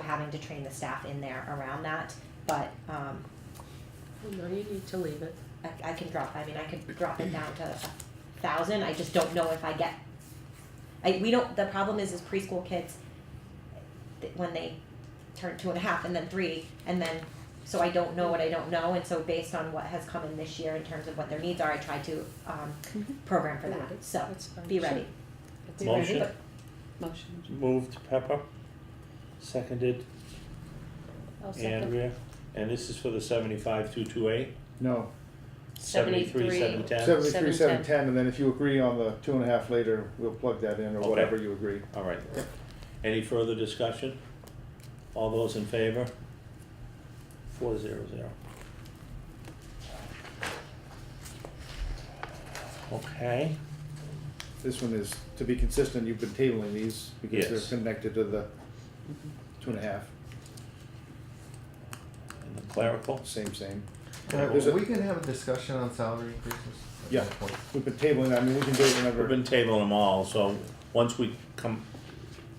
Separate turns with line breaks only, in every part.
having to train the staff in there around that, but, um,
No, you need to leave it.
I, I can drop, I mean, I could drop it down to a thousand, I just don't know if I get. I, we don't, the problem is, is preschool kids, th- when they turn two and a half and then three, and then, so I don't know what I don't know, and so based on what has come in this year in terms of what their needs are, I try to, um, program for
Be
that,
ready.
so,
Mm-hmm. That's fine.
be ready.
That's
Motion.
fine.
Motion.
Moved Pepper, seconded
I'll second.
Andrea, and this is for the seventy-five two two eight?
No,
Seventy-three, seven ten?
seventy-three, seven, ten, and then if you agree on the two and a half later, we'll plug that in or
Okay.
whatever you agree.
All right. Any further discussion? All those in favor? Four zero zero. Okay,
This one is, to be consistent, you've been tabling these because
Yes.
they're connected to the two and a half,
and the clerical,
same, same.
Yeah,
There's a-
we can have a discussion on salary increases. at
Yeah.
some point.
We've been tabling, I mean, we can do it
we've
whenever.
been tabling them all, so once we come,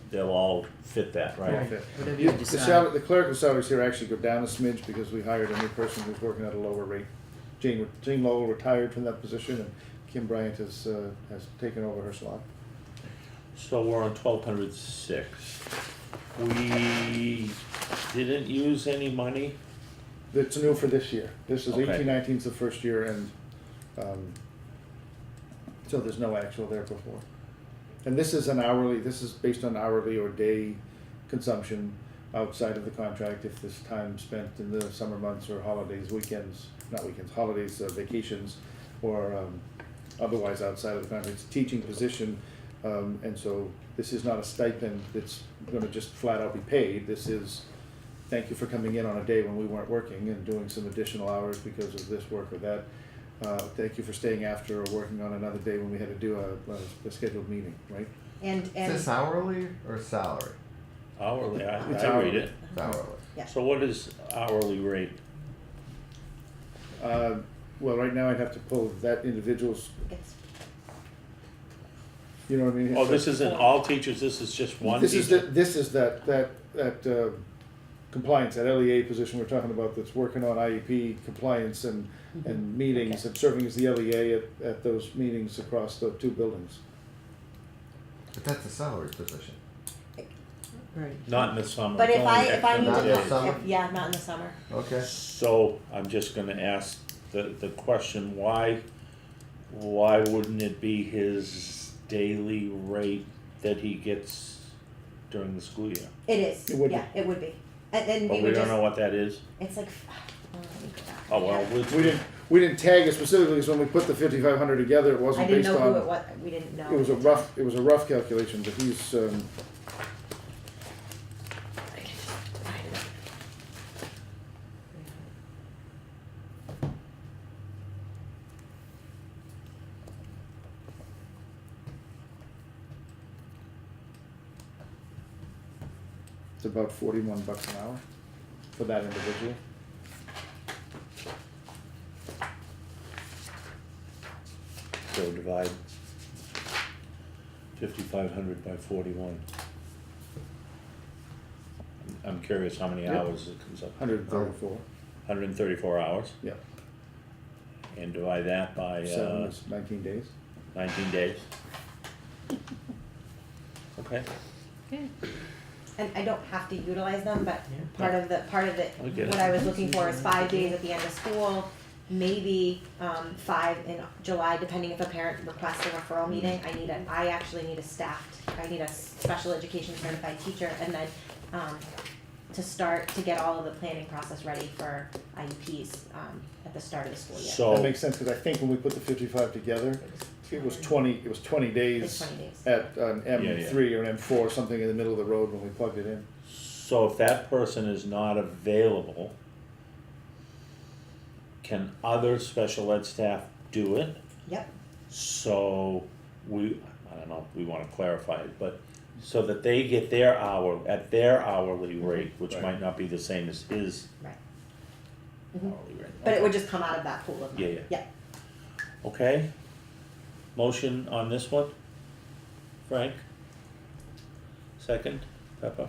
they'll all fit that, right?
Okay.
Whatever
You-
you
The
decide.
salary, the clerical salaries here actually go down a smidge because we hired a new person who's working at a lower rate. Jane, Jane Lowell retired from that position and Kim Bryant has, uh, has taken over her slot.
So we're on twelve hundred six. We didn't use any money,
That's new for this year. This is
Okay.
eighteen nineteen's the first year and, um, so there's no actual there before. And this is an hourly, this is based on hourly or day consumption outside of the contract if this time spent in the summer months or holidays, weekends, not weekends, holidays, uh, vacations, or, um, otherwise outside of the contract. It's a teaching position, um, and so this is not a stipend that's gonna just flat out be paid. This is, thank you for coming in on a day when we weren't working and doing some additional hours because of this work or that. Uh, thank you for staying after or working on another day when we had to do a, a- a scheduled meeting, right?
And,
Is
and,
this hourly or salary?
hourly, I,
It's
I read it.
It's hourly.
yeah.
So what is hourly rate?
Uh, well, right now I'd have to pull that individual's,
It's
you know what I mean?
Oh, this isn't all teachers, this is just one
This is, the-
teacher?
this is that, that, that uh, compliance, that LEA position we're talking about that's working on IEP compliance and, and meetings and serving as the LEA at, at those meetings across the two buildings.
But that's a salary position.
Right.
Not in the summer.
But
it's
if
only
I, if I
X
need
number of
Not in the
days.
to,
summer?
if- yeah, not in the summer.
Okay.
So I'm just gonna ask the, the question, why, why wouldn't it be his daily rate that he gets during the school year?
It is,
It would be.
yeah, it would be. And then
But
we
we
would
don't know
just,
what that is?
it's like, oh, let me go back.
Oh, well,
We didn't, we didn't tag it specifically, because when we put the fifty-five hundred together, it
I
wasn't
didn't
based
know who it
on,
was, we didn't know.
it was a rough, it was a rough calculation, but he's, um,
I can just find it.
it's about forty-one bucks an hour for that individual.
So divide fifty-five hundred by forty-one. I'm- I'm curious how many
Yep.
hours it comes up,
Hundred and thirty-four,
hundred and thirty-four hours,
yeah,
and divide that by,
seven
uh,
is nineteen days.
nineteen days. Okay,
Okay.
And I don't have to utilize them, but part of the, part of it,
I get
what
it.
I was looking for is five days at the end of school, maybe, um, five in July, depending if a parent requests a referral
Mm-hmm.
meeting, I need a, I actually need a staffed, I need a special education certified teacher, and then, um, to start, to get all of the planning process ready for IEPs, um, at the start of the school year.
That
so,
makes sense, because I think when we put the fifty-five together, it was twenty, it was twenty
It was
days
twenty days.
at an
Yeah,
M
yeah.
three or an M four, something in the middle of the road when we plugged it in.
so if that person is not available, can other special ed staff do it?
Yep,
So we, I don't know, if we wanna clarify it, but so that they get their hour, at their hourly
Mm-hmm.
rate, which
Right.
might not be the same as his
right. Mhm.
hourly rate.
But it would just come out of that pool of money.
Yeah, yeah. Okay, motion on this one, Frank? Second, Pepper?